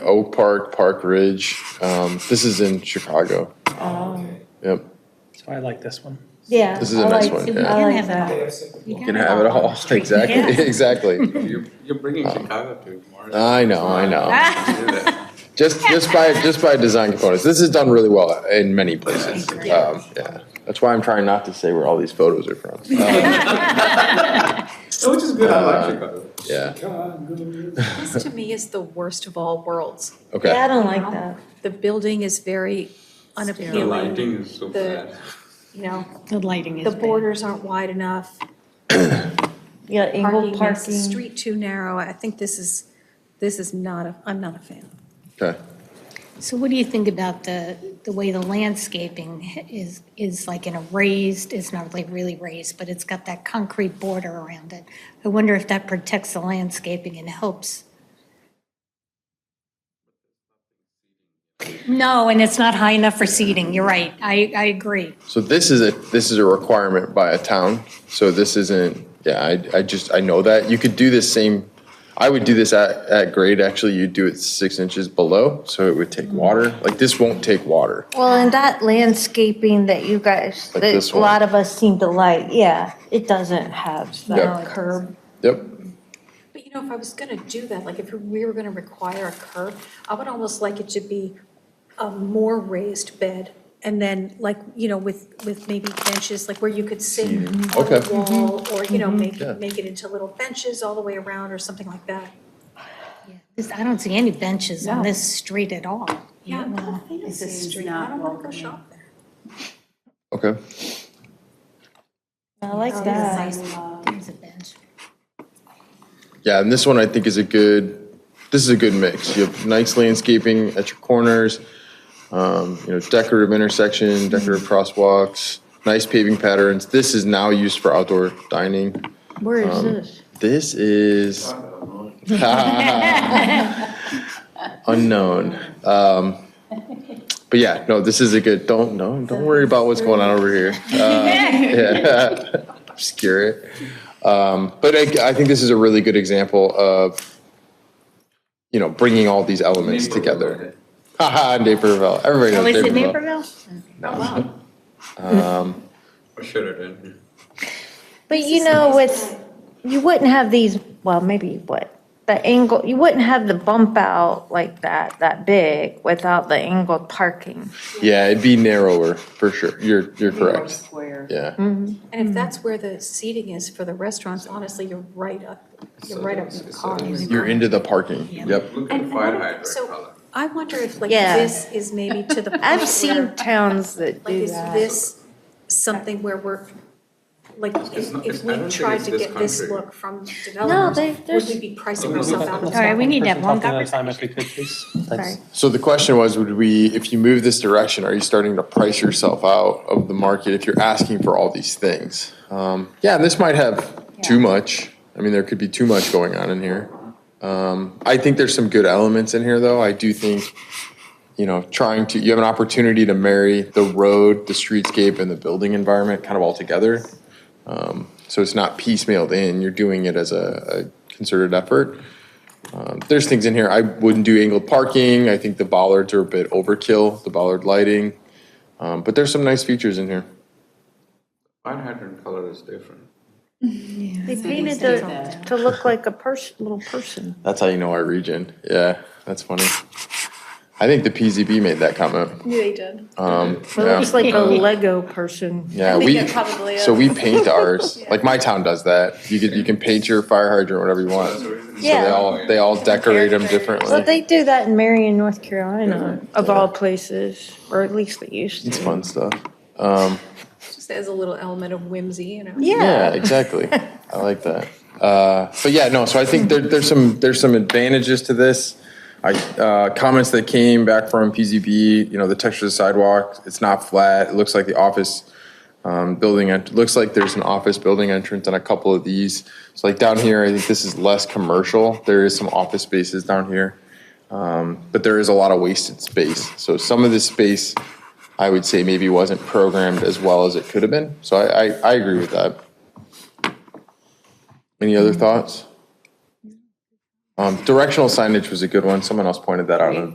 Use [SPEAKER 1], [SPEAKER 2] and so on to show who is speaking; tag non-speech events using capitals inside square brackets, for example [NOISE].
[SPEAKER 1] Oak Park, Park Ridge. Um, this is in Chicago. Yep.
[SPEAKER 2] So I like this one.
[SPEAKER 3] Um, Yeah.
[SPEAKER 1] This is a
[SPEAKER 3] I
[SPEAKER 1] nice
[SPEAKER 3] like-
[SPEAKER 1] one, yeah.
[SPEAKER 3] I like
[SPEAKER 4] You can have
[SPEAKER 3] that.
[SPEAKER 1] You can have it all. [LAUGHS] Exactly. Exactly.
[SPEAKER 5] You're, you're bringing Chicago to it, Mark.
[SPEAKER 1] I know. I know.
[SPEAKER 4] Oh.
[SPEAKER 5] Do
[SPEAKER 1] [LAUGHS]
[SPEAKER 5] that.
[SPEAKER 1] Just just by just by design components, this is done really well in many places. Um, yeah. That's why I'm trying not to say where all these photos are [LAUGHS] from. Um,
[SPEAKER 5] Oh, Which is good, I like Chicago.
[SPEAKER 1] yeah.
[SPEAKER 5] Chicago.
[SPEAKER 4] This to me is the worst of all worlds.
[SPEAKER 3] Yeah, I
[SPEAKER 1] Okay.
[SPEAKER 3] don't like that.
[SPEAKER 4] The building is very
[SPEAKER 5] The
[SPEAKER 4] unappealing,
[SPEAKER 5] lighting is so
[SPEAKER 4] The-
[SPEAKER 5] bad.
[SPEAKER 4] you know,
[SPEAKER 6] The lighting is
[SPEAKER 4] the
[SPEAKER 6] bad.
[SPEAKER 4] borders aren't wide enough.
[SPEAKER 3] Yeah,
[SPEAKER 4] Parking
[SPEAKER 3] angled
[SPEAKER 4] makes the
[SPEAKER 3] parking.
[SPEAKER 4] street too narrow. I think this is, this is not, a. am not a fan.
[SPEAKER 1] Okay.
[SPEAKER 6] So what do you think about the, the way the landscaping is, is like in a raised, it's not like really raised, but it's got that concrete border around it. I wonder if that protects the landscaping and helps. No, and it's not high enough for seating, you're right, I, I agree.
[SPEAKER 1] So this is a this is a requirement by a town. So this isn't. Yeah, I, I just I know that you could do this same. I would do this at, at grade. Actually, you do it six inches below, so it would take water. Like this won't take water.
[SPEAKER 3] Well, and that landscaping that you guys,
[SPEAKER 1] Like
[SPEAKER 3] that
[SPEAKER 1] this
[SPEAKER 3] a
[SPEAKER 1] one.
[SPEAKER 3] lot of us seem to like, yeah, it doesn't have
[SPEAKER 1] Yeah.
[SPEAKER 3] that curb.
[SPEAKER 1] Yep.
[SPEAKER 4] But you know, if I was gonna do that, like if we were gonna require a curb, I would almost like it to be a more raised bed. And then like, you know, with, with maybe benches, like where you could sit on the
[SPEAKER 1] Okay. Mm-hmm.
[SPEAKER 4] wall or, you know, make,
[SPEAKER 1] Yeah.
[SPEAKER 4] make it into little benches all the way around or something like that.
[SPEAKER 6] This- I don't see any benches on
[SPEAKER 4] No.
[SPEAKER 6] this street at all.
[SPEAKER 4] Yeah, I'm not a fan of
[SPEAKER 7] This
[SPEAKER 4] Sixth
[SPEAKER 7] is
[SPEAKER 4] Street. I
[SPEAKER 7] not
[SPEAKER 4] don't wanna go
[SPEAKER 7] welcoming.
[SPEAKER 4] shop there.
[SPEAKER 1] Okay.
[SPEAKER 3] I like
[SPEAKER 4] Oh,
[SPEAKER 3] that.
[SPEAKER 6] There's a bench.
[SPEAKER 1] Yeah, and this one I think is a good, this is a good mix. You have nice landscaping at your corners, um, you know, decorative intersection, decorative crosswalks, nice paving patterns. This is now used for outdoor dining.
[SPEAKER 3] Where
[SPEAKER 1] Um,
[SPEAKER 3] is this?
[SPEAKER 1] This is [LAUGHS] unknown. Um, but yeah, no, this is a good. Don't no, don't worry about what's going on over
[SPEAKER 6] [LAUGHS]
[SPEAKER 1] here. Uh, yeah, [LAUGHS] obscure it. Um, but I, I think this is a really good example of you know bringing all these elements together. [LAUGHS] Haha, Naperville. Everybody
[SPEAKER 6] Oh,
[SPEAKER 1] knows
[SPEAKER 6] is it
[SPEAKER 1] Naperville.
[SPEAKER 6] Naperville?
[SPEAKER 5] [LAUGHS]
[SPEAKER 1] Um,
[SPEAKER 5] I should have done.
[SPEAKER 3] But you know, with, you wouldn't have these, well, maybe you would. The angle, you wouldn't have the bump out like that, that big, without the angled parking.
[SPEAKER 1] Yeah, it'd be narrower for sure. You're you're correct.
[SPEAKER 7] Square.
[SPEAKER 1] Yeah.
[SPEAKER 6] Mm-hmm.
[SPEAKER 4] And if that's where the seating is for the restaurants, honestly, you're right up, you're right up in the cars.
[SPEAKER 1] You're into the parking. Yep.
[SPEAKER 5] Look at the
[SPEAKER 4] And
[SPEAKER 5] fire
[SPEAKER 4] I don't,
[SPEAKER 5] hydrant
[SPEAKER 4] so
[SPEAKER 5] color.
[SPEAKER 4] I wonder if like
[SPEAKER 3] Yeah.
[SPEAKER 4] this is maybe to the [LAUGHS] point
[SPEAKER 3] I've
[SPEAKER 4] where,
[SPEAKER 3] seen towns that
[SPEAKER 4] like,
[SPEAKER 3] do
[SPEAKER 4] is
[SPEAKER 3] that.
[SPEAKER 4] this something where we're, like, if,
[SPEAKER 5] not-
[SPEAKER 4] if
[SPEAKER 5] it's- I don't
[SPEAKER 4] we
[SPEAKER 5] think
[SPEAKER 4] tried
[SPEAKER 5] it's
[SPEAKER 4] to
[SPEAKER 5] this
[SPEAKER 4] get this
[SPEAKER 5] country.
[SPEAKER 4] look from developers,
[SPEAKER 3] they-
[SPEAKER 4] would
[SPEAKER 3] there's-
[SPEAKER 4] we be pricing ourselves out of
[SPEAKER 6] All right, we need to have one
[SPEAKER 2] Let's talk another time if we could, please. Thanks.
[SPEAKER 1] So the question was, would we, if you move this direction, are you starting to price yourself out of the market if you're asking for all these things? Um, yeah, and this might have too much. I mean, there could be too much going on in here. Um, I think there's some good elements in here, though. I do think, you know, trying to, you have an opportunity to marry the road, the streetscape, and the building environment kind of all together. Um, so it's not piecemealed in. You're doing it as a, a concerted effort there's things in here. I wouldn't do angled parking. I think the bollards are a bit overkill, the bollard lighting. Um, but there's some nice features in here.
[SPEAKER 5] Fire hydrant color is different.
[SPEAKER 3] They painted
[SPEAKER 7] do
[SPEAKER 3] the,
[SPEAKER 7] that.
[SPEAKER 3] to look like a person,
[SPEAKER 1] [LAUGHS]
[SPEAKER 3] little person.
[SPEAKER 1] That's how you know our region. Yeah, that's funny. I think the PZB made that comment. Yeah, they did. Um,
[SPEAKER 3] It
[SPEAKER 1] yeah.
[SPEAKER 3] looks like a Lego person.
[SPEAKER 1] Yeah, we, so we paint
[SPEAKER 3] [LAUGHS]
[SPEAKER 1] ours. Like my town does that. You can, you can paint your fire hydrant whatever you want. So they
[SPEAKER 3] Yeah.
[SPEAKER 1] all, they all decorate them
[SPEAKER 3] Well,
[SPEAKER 1] differently.
[SPEAKER 3] they do that in Marion, North Carolina, of all places, or at least they used
[SPEAKER 1] It's
[SPEAKER 3] to.
[SPEAKER 1] fun stuff. Um,
[SPEAKER 4] just as a little element of whimsy, you know?
[SPEAKER 1] Yeah, exactly. I like that. Uh, but yeah, no. So I think there, there's some there's some advantages to this. I uh, comments that came back from PZB. You know, the texture of the sidewalk. It's not flat. It looks like the office um, building. It looks like there's an office building entrance on a couple of these. So like down here, I think this is less commercial. There is some office spaces down here, um, but there is a lot of wasted space. So some of this space. I would say maybe wasn't programmed as well as it could have been. So I, I, I agree with that. Any other thoughts? Um, Directional signage was a good one. Someone else pointed that out on a